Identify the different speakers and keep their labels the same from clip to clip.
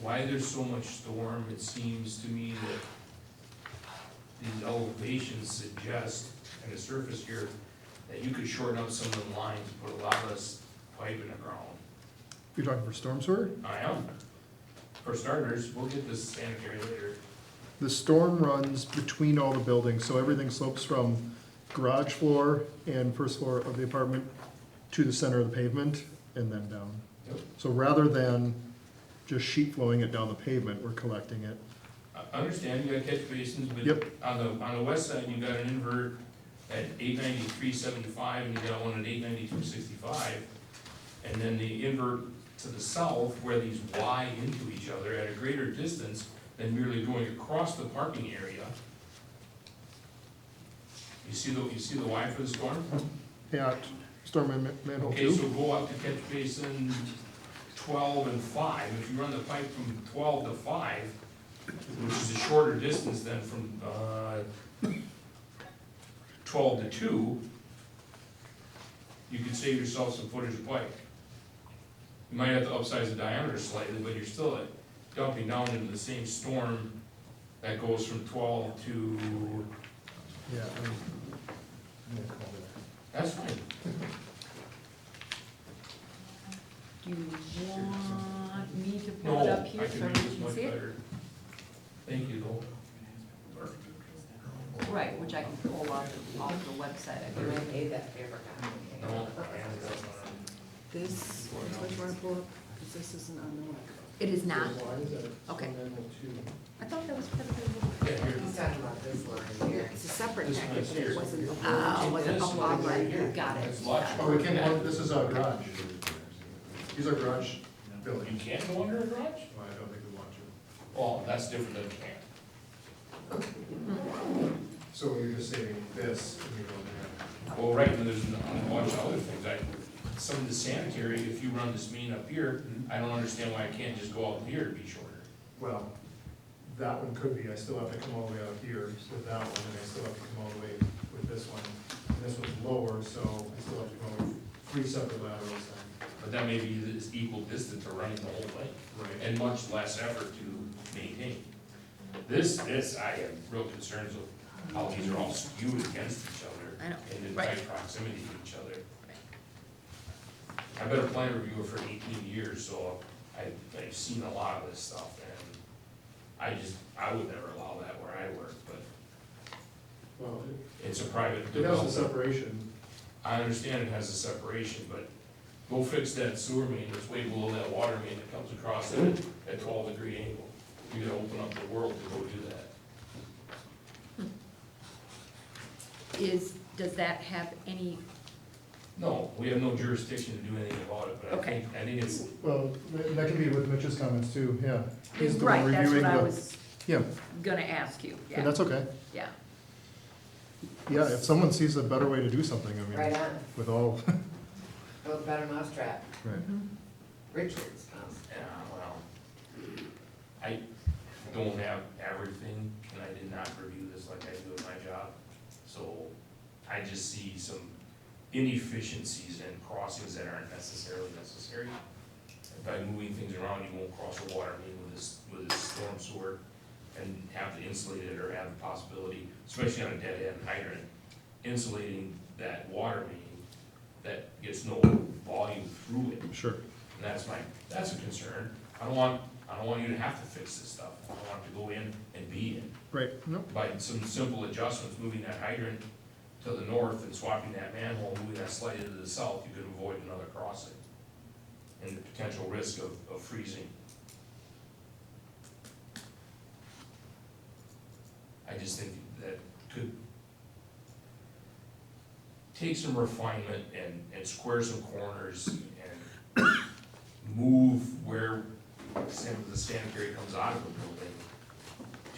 Speaker 1: why there's so much storm, it seems to me that these elevations suggest, and the surface here, that you could shorten up some of the lines, put a lot less pipe in the ground.
Speaker 2: You're talking for storm sewer?
Speaker 1: I am. For starters, we'll get this sanitary later.
Speaker 2: The storm runs between all the buildings, so everything slopes from garage floor and first floor of the apartment to the center of the pavement and then down.
Speaker 1: Yep.
Speaker 2: So rather than just sheet flowing it down the pavement, we're collecting it.
Speaker 1: I I understand you got catch basins, but
Speaker 2: Yep.
Speaker 1: on the, on the west side, you got an invert at eight ninety-three seventy-five, and you got one at eight ninety-two sixty-five. And then the invert to the south, where these Y into each other at a greater distance than merely going across the parking area. You see the, you see the Y for the storm?
Speaker 2: At storm man- manhole
Speaker 1: Okay,
Speaker 2: two,
Speaker 1: so go out to catch basin twelve and five, if you run the pipe from twelve to five, which is a shorter distance than from, uh, twelve to two, you could save yourself some footage of pipe. You might have to upsize the diameter slightly, but you're still dumping down into the same storm that goes from twelve to,
Speaker 2: yeah, and
Speaker 1: that's fine.
Speaker 3: Do you want me to
Speaker 1: No,
Speaker 3: pull it up
Speaker 1: I
Speaker 3: here so
Speaker 1: can
Speaker 3: we
Speaker 1: make this
Speaker 3: can
Speaker 1: much
Speaker 3: see it?
Speaker 1: better. Thank you, though.
Speaker 3: Right, which I can pull off, the- off the website, I
Speaker 4: You
Speaker 3: can make
Speaker 4: made that paper copy.
Speaker 1: No.
Speaker 5: This, is what you wanna pull up, 'cause this isn't on the web.
Speaker 3: It is not? Okay. I thought that was part of the.
Speaker 1: Yeah, here.
Speaker 4: He's talking about this line here.
Speaker 5: It's a separate
Speaker 1: This one's
Speaker 5: package, but
Speaker 1: here.
Speaker 5: it wasn't the whole.
Speaker 3: Oh, was
Speaker 5: agenda.
Speaker 3: it,
Speaker 1: This
Speaker 3: oh,
Speaker 1: one
Speaker 3: all
Speaker 1: is
Speaker 3: right,
Speaker 1: here.
Speaker 3: got it.
Speaker 1: It's locked.
Speaker 3: got
Speaker 2: Oh, we can, oh, this is our garage. These are garage
Speaker 1: You
Speaker 2: buildings.
Speaker 1: can't go under a garage?
Speaker 2: I don't think we want to.
Speaker 1: Well, that's different than can't.
Speaker 2: So you're just saving this and you don't
Speaker 1: Well, right, and there's a bunch of other things, I, some of the sanitary, if you run this mean up here, I don't understand why I can't just go out here to be shorter.
Speaker 2: well, that one could be, I still have to come all the way out here with that one, and I still have to come all the way with this one. And this one's lower, so I still have to go three separate laterals and.
Speaker 1: But that may be this equal distance to running the whole thing,
Speaker 2: Right.
Speaker 1: and much less effort to maintain. This, this, I have real concerns with how these are all skewed against each other.
Speaker 3: I know,
Speaker 1: and in
Speaker 3: right.
Speaker 1: tight proximity to each other. I've been a plan reviewer for eighteen years, so I, I've seen a lot of this stuff, and I just, I would never allow that where I work, but
Speaker 2: Well,
Speaker 1: it's a private
Speaker 2: it has a
Speaker 1: development.
Speaker 2: separation.
Speaker 1: I understand it has a separation, but go fix that sewer main that's way below that water main that comes across it at twelve degree angle. You gotta open up the world to go do that.
Speaker 3: Is, does that have any,
Speaker 1: No, we have no jurisdiction to do anything about it, but I
Speaker 3: Okay.
Speaker 1: think, I think it's,
Speaker 2: Well, that that could be with Mitch's comments too, yeah. He's the one
Speaker 3: right, that's
Speaker 2: reviewing
Speaker 3: what I
Speaker 2: the-
Speaker 3: was
Speaker 2: Yeah,
Speaker 3: gonna ask you,
Speaker 2: and
Speaker 3: yeah,
Speaker 2: that's okay.
Speaker 3: yeah.
Speaker 2: Yeah, if someone sees a better way to do something, I
Speaker 4: Right
Speaker 2: mean,
Speaker 4: on,
Speaker 2: with all,
Speaker 4: build a better mousetrap,
Speaker 2: right.
Speaker 4: Richard's mouse.
Speaker 1: Yeah, well, I don't have everything, and I did not review this like I do in my job, so I just see some inefficiencies and crossings that aren't necessarily necessary. And By moving things around, you won't cross a water main with this, with this storm sewer and have to insulate it or have the possibility, especially on a dead end hydrant, insulating that water main that gets no volume through it.
Speaker 2: Sure.
Speaker 1: And that's my, that's a concern. I don't want, I don't want you to have to fix this stuff. I don't want it to go in and be in.
Speaker 2: Right, no,
Speaker 1: By some simple adjustments, moving that hydrant to the north and swapping that manhole, moving that slightly to the south, you could avoid another crossing. And the potential risk of, of freezing. I just think that could take some refinement and, and square some corners and move where some of the sanitary comes out of the building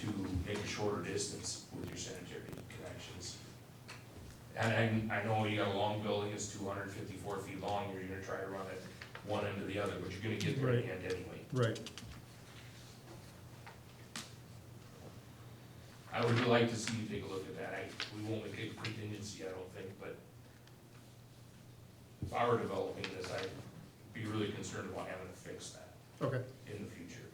Speaker 1: to make a shorter distance with your sanitary connections. And, and I know you got a long building, it's two hundred and fifty-four feet long, you're gonna try to run it one end to the other, but you're gonna get there in the end anyway.
Speaker 2: right.
Speaker 1: I would like to see you take a look at that, I, we won't make a contingency, I don't think, but if I were developing this, I'd be really concerned about having to fix that
Speaker 2: Okay,
Speaker 1: in the future.